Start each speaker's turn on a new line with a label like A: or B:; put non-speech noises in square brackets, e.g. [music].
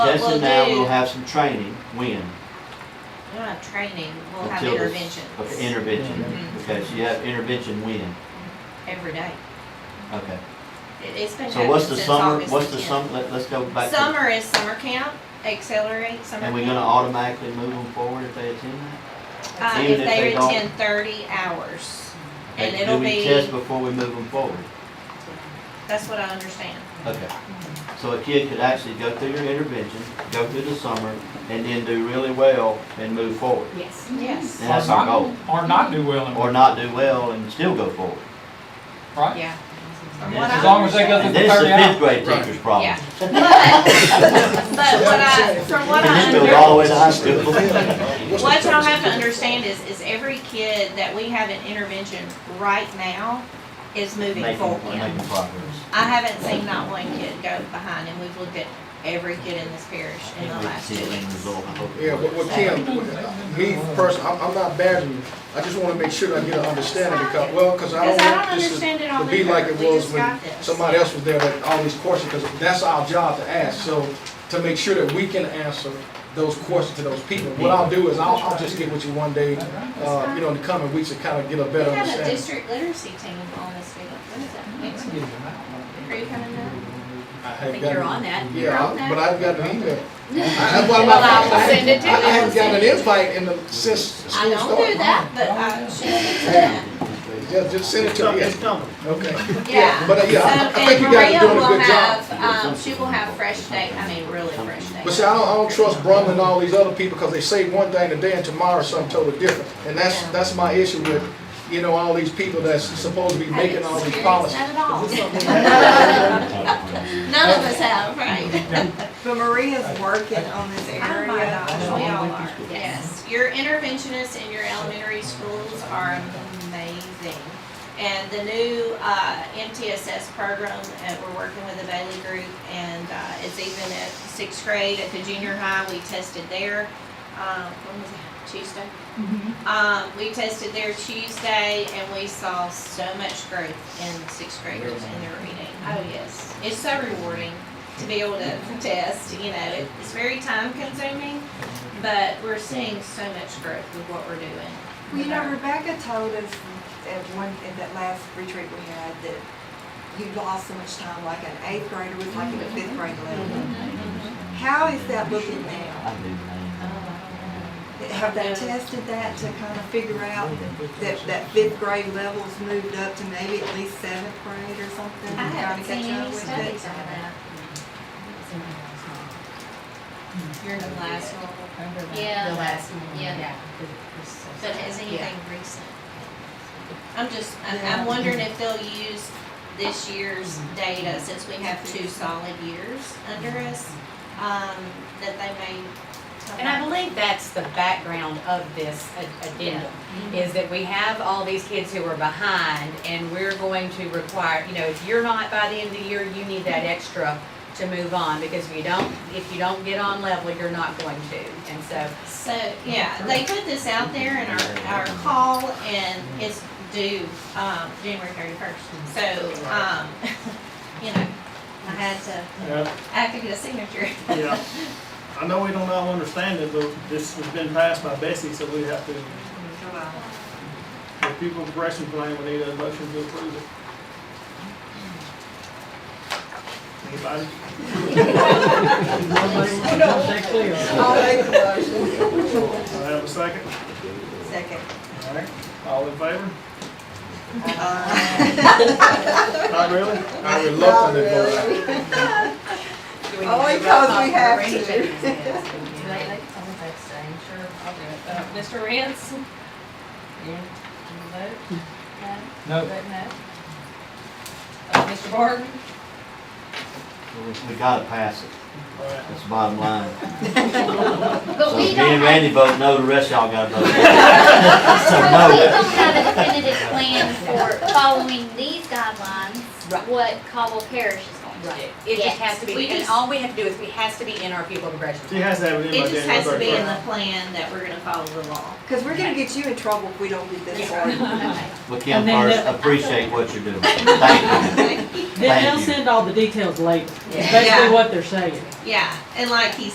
A: What
B: Justin
A: we'll
B: and I will
A: do,
B: have some training, when,
A: not training, we'll have
B: Until the-
A: interventions
B: of intervention,
A: Mhm.
B: okay, so you have intervention when,
A: every day.
B: okay.
A: It- It's been
B: So what's
A: happening
B: the
A: since
B: summer,
A: August
B: what's the
A: 10th.
B: sum, let, let's go back to,
A: Summer is summer camp, accelerate summer camp.
B: and we're gonna automatically move them forward if they attend that?
A: Uh,
B: even
A: if
B: if
A: they
B: they don't-
A: attend thirty hours, and
B: Okay,
A: it'll
B: Do we
A: be-
B: test before we move them forward?
A: that's what I understand.
B: Okay.
A: Mm-hmm.
B: So a kid could actually go through your intervention, go through the summer, and then do really well and move forward,
C: Yes.
A: Yes,
B: And that's our goal.
D: Or not do well in
B: or
D: work,
B: not do well and still go forward.
D: right?
A: yeah.
B: And
A: What
B: this-
D: As long as they go
B: And
D: through the
B: this is
D: thirty
B: the fifth
D: hours.
B: grade teacher's problem.
A: Yeah. But, [laughs] but what I, from what I
B: And this
A: under.
B: goes all the way to high school.
A: What y'all have to understand is, is every kid that we have an intervention right now is moving
B: Making,
A: forward.
B: making progress.
A: I haven't seen not one kid go behind, and we've looked at every kid in this parish in the
B: Can't wait to
A: last
B: see
A: two
B: the end
A: weeks.
B: result. I hope it
E: Yeah, but,
B: works.
E: well, Kim, me personally, I'm, I'm not badgering you. I just wanna make sure I get an understanding because, well, cause I
A: Because
E: don't
A: I don't
E: want this to,
A: understand it all
E: to
A: either.
E: be like it
A: We
E: was
A: just
E: when
A: got this.
E: somebody else was there that all these questions, cause that's our job to ask. So, to make sure that we can answer those questions to those people. What I'll do is I'll, I'll just get with you one day, uh, you know, in the coming weeks to kinda get a
A: We
E: better
A: have a
E: understanding.
A: district literacy team on this field. What is that, next week? Are you coming up?
E: I
C: I
E: have
C: think
E: gotten-
C: you're on that.
E: Yeah, I- but I've got
A: [laughs]
E: an email. That's why I'm
C: Well,
E: not,
C: I will
E: I
C: send it to you.
E: haven't gotten an invite in the, since school
A: I
E: started.
A: don't do that, but I should do that.
E: Just, just send it to me. Okay.
A: Yeah.
E: But, uh, yeah,
A: So,
E: I- I think
A: and
E: you guys
A: Maria
E: are doing a
A: will
E: good job.
A: have, um, she will have fresh data, I mean, really fresh data.
E: But see, I don't, I don't trust Brum and all these other people because they say one thing today and tomorrow something totally different. And that's, that's my issue with, you know, all these people that's supposed to be
A: Haven't
E: making all these
A: experienced
E: policies.
A: None at all.
E: [laughs]
A: None of us have, right?
F: But Maria's working on this
A: Oh my gosh, we
F: area.
A: all are, yes. Your interventionists in your elementary schools are amazing. And the new, uh, MTSS program, uh, we're working with the Bailey Group, and, uh, it's even at sixth grade, at the junior high, we tested there, um, when was that, Tuesday?
F: Mm-hmm.
A: Um, we tested there Tuesday and we saw so much growth in sixth graders in their reading. Oh, yes. It's so rewarding to be able
F: [laughs]
A: to [laughs] test, you know, it- it's very time consuming, but we're seeing so much growth with what we're doing.
F: Well, you know, Rebecca told us at one, at that last retreat we had, that you lost so much time, like an eighth grader was like at a fifth grade
B: Mm-hmm.
F: level. How is that looking now?
B: I do, man.
F: Have they tested that to kind of figure out that, that fifth grade level's moved up to maybe at least seventh grade or something?
A: I haven't
F: Trying to catch
A: seen
F: up
A: any
F: with it?
A: studies on that. You're the last one. Yeah.
C: The last one.
A: Yeah. But has anything recent? I'm just, I'm, I'm wondering if they'll use this year's data, since we have two solid years under us, um, that they may. tell
C: And I
A: us.
C: believe that's the background of this a- addendum, is that we have all these kids who are behind, and we're going to require, you know, if you're not by the end of the year, you need that extra to move on, because if you don't, if you don't get on level, you're not going to, and so.
A: So, yeah, they put this out there in our, our call and it's due, um, January thirty-first. So, um, [laughs] you know, I had to,
G: Yeah,
A: I have to get a signature.
G: yeah. I know we don't all understand it, but this has been passed by Bessie, so we have to,
F: July.
G: the people progression plan, we need a motion to approve it. Anybody? Do I have a second?
F: Second.
G: All right, all in favor?
F: Uh,
G: Not really?
E: I reluctantly
F: Not
E: vote.
F: really.
C: do we need
F: Only
C: to vote
F: 'cause
C: on
F: Oh, we have to. [laughs]
C: arrangements? Yes, we do.
H: Sure, I'll do it. Uh, Mr. Rance? Yeah. Vote?
C: Hmm.
D: No.
H: Vote no. Uh, Mr. Barton?
B: We gotta pass it,
G: All right.
B: that's the bottom line.
I: But
B: So
I: we
B: if me
I: don't
B: and
I: have,
B: Randy vote no, the rest of y'all gotta vote yes. No.
I: but we don't have a definitive plan for following these guidelines,
C: Right.
I: what Caldwell Parish is going to do.
C: Right. It just has to
A: We
C: be, and
A: just-
C: all we have to do is, we has to be in our people progression.
G: She has to have it in
A: [laughs] It
G: by
A: just
G: January
A: has to be in
G: thirty-first.
A: the plan that we're gonna follow the law.
F: Cause we're gonna get you in trouble if we don't get this right.
I: [laughs]
B: Well, Kim,
H: And then
B: first,
H: the-
B: appreciate what you're doing, thank you.
A: Yeah,
H: They- They'll
B: you.
H: send all the details later, That's basically what they're saying.
A: and like he